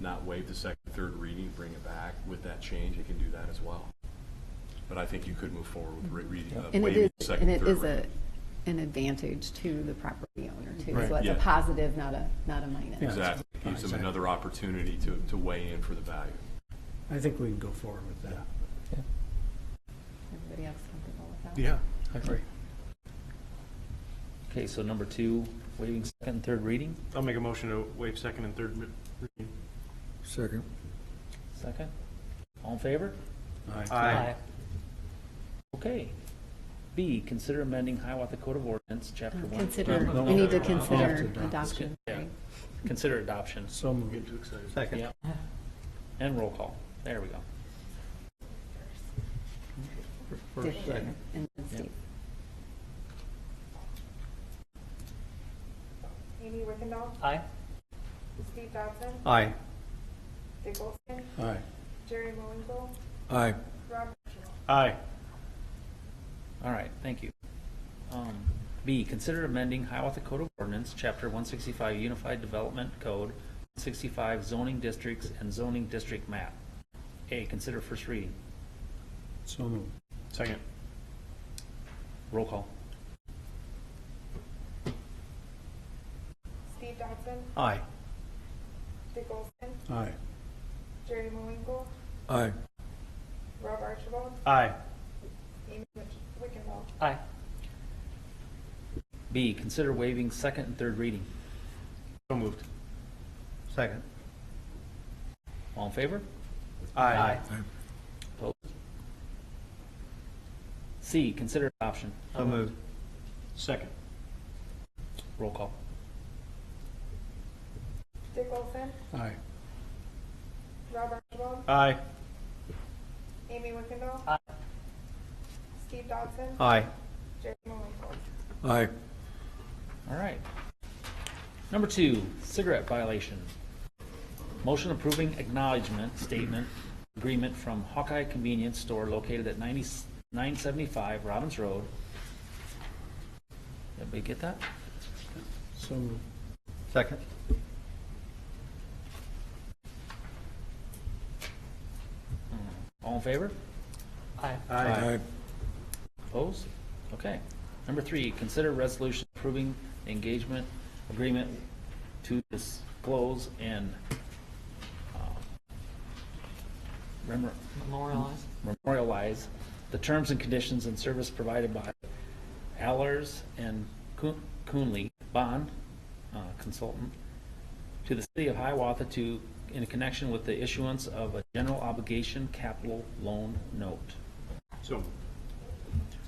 not waive the second, third reading, bring it back with that change, it can do that as well. But I think you could move forward with re- reading, uh, And it waiving the is, second, and it third is a, reading. an advantage to the property owner too. Right. So it's a Yeah. positive, not a, not a minus. Exactly. Gives them Exactly. another opportunity to, to weigh in for the value. I think we can go forward with that. Everybody else comfortable with that? Yeah, I agree. Okay, so number two, waiving second and third reading, I'll make a motion to waive second and third mi- reading. Second. second. All in favor? Okay. B, consider amending Hiawatha Code of Ordinance, Chapter Uh, One. Consider, No, we need to no, Have consider to adopt. adoption. Yeah. right? Consider adoption So moved. Second. Yeah. And roll call. There we go. Dick there, and then Steve. Amy Wickendall, Aye. Steve Dodson, Aye. Dick Olson, Aye. Jerry Moinkle, Aye. Rob Mitchell. Aye. All right, thank you. Um, B, consider amending Hiawatha Code of Ordinance, Chapter 165 Unified Development Code, 165 zoning districts and zoning district map. A, consider first reading. So moved. Second. Roll call. Steve Dodson, Aye. Dick Olson, Aye. Jerry Moinkle, Aye. Rob Archibald, Aye. Amy Wick- Wickendall. Aye. B, consider waiving second and third reading. So moved. Second. All in favor? Aye. Opposed? C, consider adoption. So moved. Second. Roll call. Dick Olson, Aye. Rob Archibald, Aye. Amy Wickendall. Steve Dodson, Aye. Jerry Moinkle. Aye. All right. Number two, cigarette violation. Motion approving acknowledgement statement agreement from Hawkeye Convenience Store located at 90 975 Robbins Road. Everybody get that? So moved. Second. All in favor? Aye. Aye. Opposed? Okay. Number three, consider resolution approving engagement agreement to disclose and uh, remember. Memorialize. Memorialize the terms and conditions and service provided by Allers and Coon- Coonley Bond uh, Consultant to the city of Hiawatha to, in connection with the issuance of a general obligation capital loan note. So moved.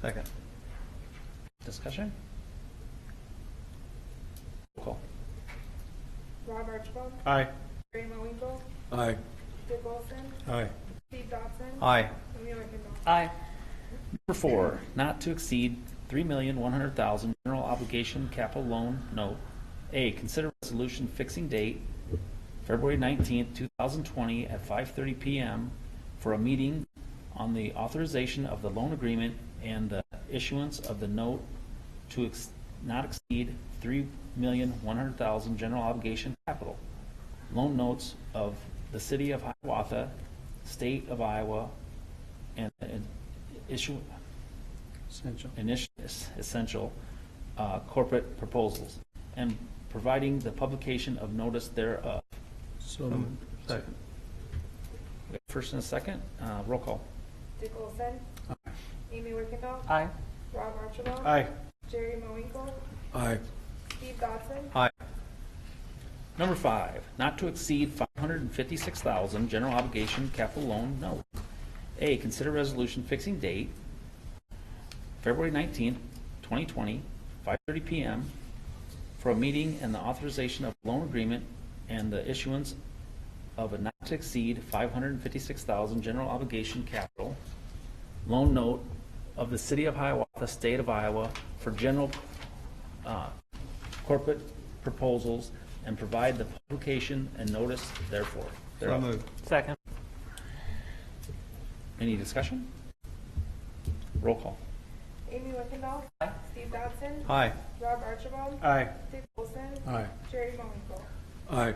Second. Discussion? Roll Call. Rob Archibald, Aye. Jerry Moinkle, Aye. Dick Olson, Aye. Steve Dodson, Aye. Amy Wickendall. Aye. Number four, not to exceed three million, one hundred thousand, general obligation capital loan note. A, consider resolution fixing date, February nineteenth, two thousand twenty, at five thirty PM for a meeting on the authorization of the loan agreement and the issuance of the note to ex- not exceed three million, one hundred thousand, general obligation capital. Loan notes of the city of Hiawatha, state of Iowa, and, and issue, Essential. initial, essential uh, corporate proposals, and providing the publication of notice uh, thereof. So moved. Second. We have First and a second, uh, roll call. Dick Olson, Amy Wickendall, Aye. Rob Archibald. Aye. Jerry Moinkle, Aye. Steve Dodson, Aye. Number five, not to exceed five hundred and fifty-six thousand, general obligation capital loan note. A, consider resolution fixing date, February nineteenth, twenty twenty, five thirty PM, for a meeting and the authorization of loan agreement and the issuance of a not to exceed five hundred and fifty-six thousand, general obligation capital loan note of the city of Hiawatha, state of Iowa, for general, uh, corporate proposals and provide the publication and notice therefore. So thereof. moved. Second. Any discussion? Roll call. Amy Wickendall, Steve Dodson, Aye. Rob Archibald, Aye. Dick Olson, Aye. Jerry Moinkle. Aye.